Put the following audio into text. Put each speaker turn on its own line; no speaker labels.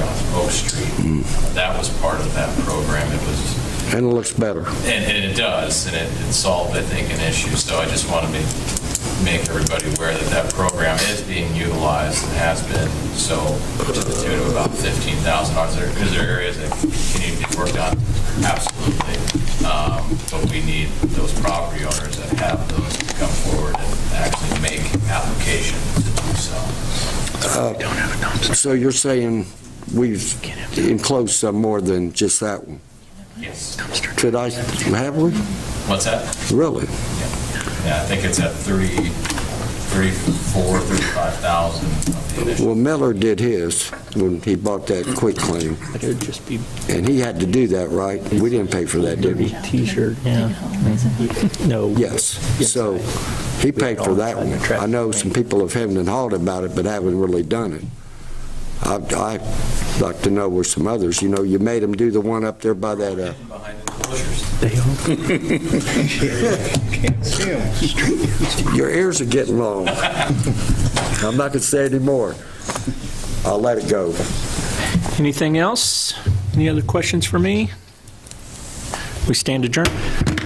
Uh, That was part of that program. It was,
and it looks better.
and and it does, and it it solved, I think, an issue. So I just want to make, make everybody aware that that program is being utilized and has been, so to the tune of about $15,000. Is there- Is there areas that continue to be worked on? Absolutely. Um, But we need those property owners that have those to come forward and actually make application to do so.
So you're saying we've enclosed some more than just that one?
Yes.
Could I, have we?
What's that?
Really?
Yeah, I think it's at 30, 34, 35,000 of the initial.
Well, Miller did his when he bought that quick claim,
It would just be
and he had to do that, right? We didn't pay for that, did
dirty
we?
t-shirt, yeah. No.
Yes. So he paid for that one. I know some people have hemmed and hawed about it, but haven't really done it. I'd I'd like to know where some others, you know, you made them do the one up there by that, uh,
Behind the enclosures.
They all
Your ears are getting long. I'm not going to say any more. I'll let it go.
Anything else? Any other questions for me? We stand adjourned.